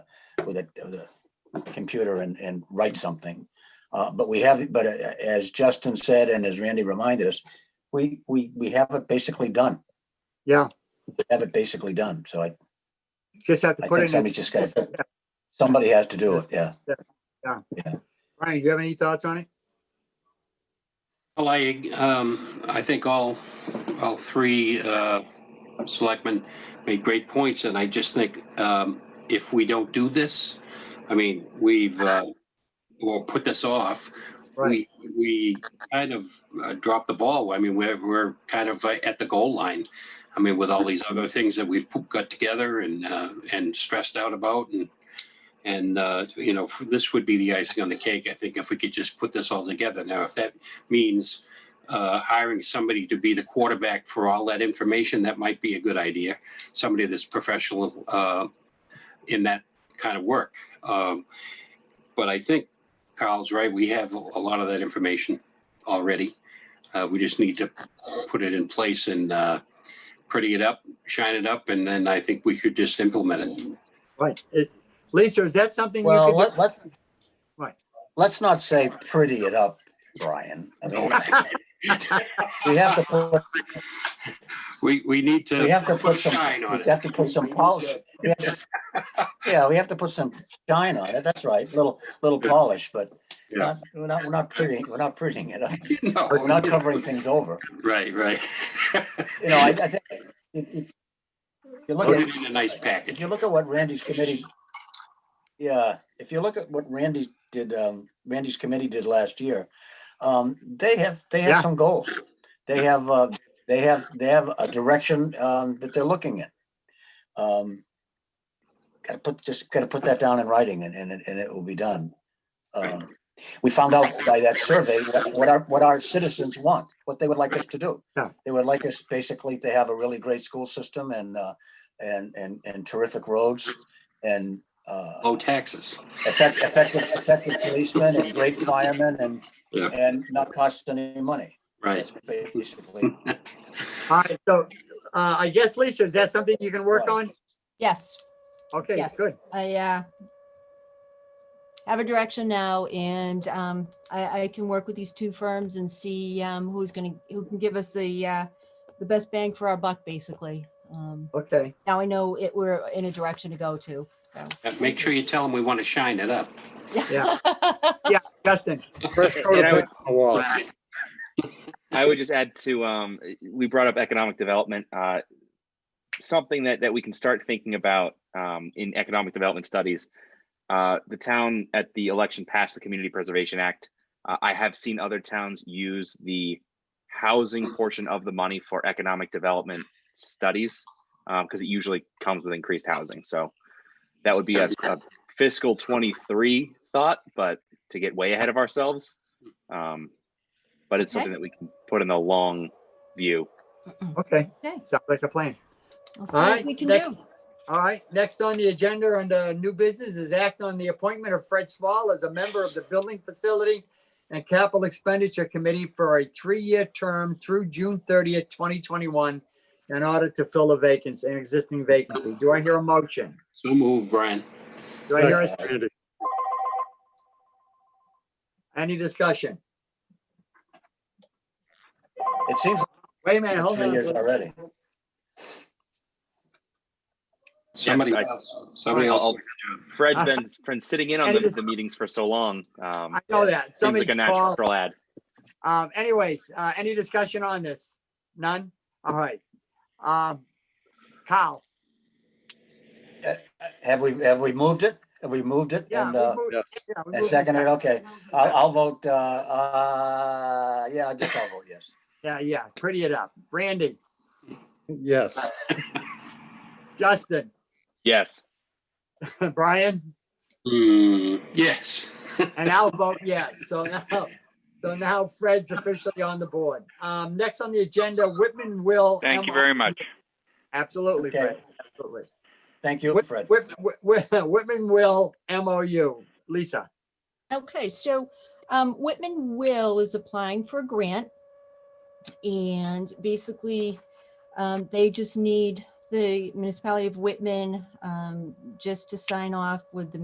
with a, with a computer and, and write something. Uh, but we have, but uh, as Justin said, and as Randy reminded us, we, we, we have it basically done. Yeah, We Have it basically done. So I, just have to I put think it in. somebody's just gotta, somebody has to do it. Yeah. Brian, do you have any thoughts on it? Well, I, um, I think all, all three, uh, selectmen made great points, and I just think, um, if we don't do this, I mean, we've, uh, we'll put this off. Right, We, we kind of uh, dropped the ball. I mean, we're, we're kind of uh, at the goal line. I mean, with all these other things that we've put- got together and, uh, and stressed out about and, and, uh, you know, this would be the icing on the cake, I think, if we could just put this all together. Now, if that means uh, hiring somebody to be the quarterback for all that information, that might be a good idea. Somebody that's professional uh, in that kind of work. Um, But I think Carl's right. We have a lot of that information already. Uh, we just need to put it in place and uh, pretty it up, shine it up, and then I think we could just implement it. right. It- Lisa, is that something you Well, could let, do? let, Right. let's not say pretty it up, Brian. I mean, it's- we have to put, We, we need we to have to put some, shine on we it. have to put some polish. we have to- Yeah, we have to put some shine on it. That's right. Little, little polish, but Yeah. not, we're not, we're not pretty, we're not prettying it up. No, We're not covering things over. Right, right. You know, I, I think it, it, you look Put at, it in a nice if package. you look at what Randy's committee, yeah, if you look at what Randy did, um, Randy's committee did last year, um, they have, they Yeah. have some goals. They have, uh, they have, they have a direction, um, that they're looking at. Um, gotta put, just gotta put that down in writing and, and, it- and it will be done. Um, we found out by that survey what what our, what our citizens want, what they would like us to do. Yeah. They would like us basically to have a really great school system and, uh, and, and, and terrific roads and, uh, Low taxes. effect- effective, effective policemen and great firemen and, Yeah. and not cost any money. Right. That's basically, All right, so, uh, I guess, Lisa, is that something you can work Right. on? Yes, Okay, Yes. good. I uh, have a direction now and um, I, I can work with these two firms and see um, who's gonna, who can give us the, uh, the best bang for our buck, basically. Um, Okay, Now I know it, we're in a direction to go to, so. Uh, Make sure you tell them we want to shine it up. Yeah. yeah, Justin. first And I prototype. would- I would just add to, um, we brought up economic development, uh, something that, that we can start thinking about, um, in economic development studies. Uh, the town at the election passed the Community Preservation Act. Uh, I have seen other towns use the housing portion of the money for economic development studies, um, because it usually comes with increased housing, so that would be a a fiscal twenty-three thought, but to get way ahead of ourselves. Um, but it's Okay. something that we can put in the long view. Okay, Okay. sounds like a plan. I'll see what Alright, we can next- do. All right, next on the agenda under new business is act on the appointment of Fred Swall as a member of the Building Facility and Capital Expenditure Committee for a three-year term through June thirtieth, twenty twenty-one in order to fill a vacancy, an existing vacancy. Do I hear a motion? So move, Brian. Do I hear a second? Any discussion? it seems Wait a minute, like hold three years on. already. Somebody I- else, somebody I'll- else. Fred's been, been sitting in on And the, it's- the meetings for so long. Um, I know that. seems like Somebody's a called. natural ad. Um, anyways, uh, any discussion on this? None? All right. Um, Kyle? Have we, have we moved it? Have we moved it? Yeah. And, we uh, moved- yeah, we and moved seconded, this- okay. I'll, I'll vote, uh, uh, yeah, I guess I'll vote yes. Yeah, yeah, pretty it up. Randy, Yes, Justin, Yes. Brian, Hmm, yes. and I'll vote yes. So now, so now Fred's officially on the board. Um, next on the agenda, Whitman will. Thank you very much. Absolutely, Okay. Fred, absolutely. Thank you, Whit- Fred. Whit- Whit- Whitman will MOU. Lisa, Okay, so um, Whitman Will is applying for a grant. And basically, um, they just need the municipality of Whitman um, just to sign off with the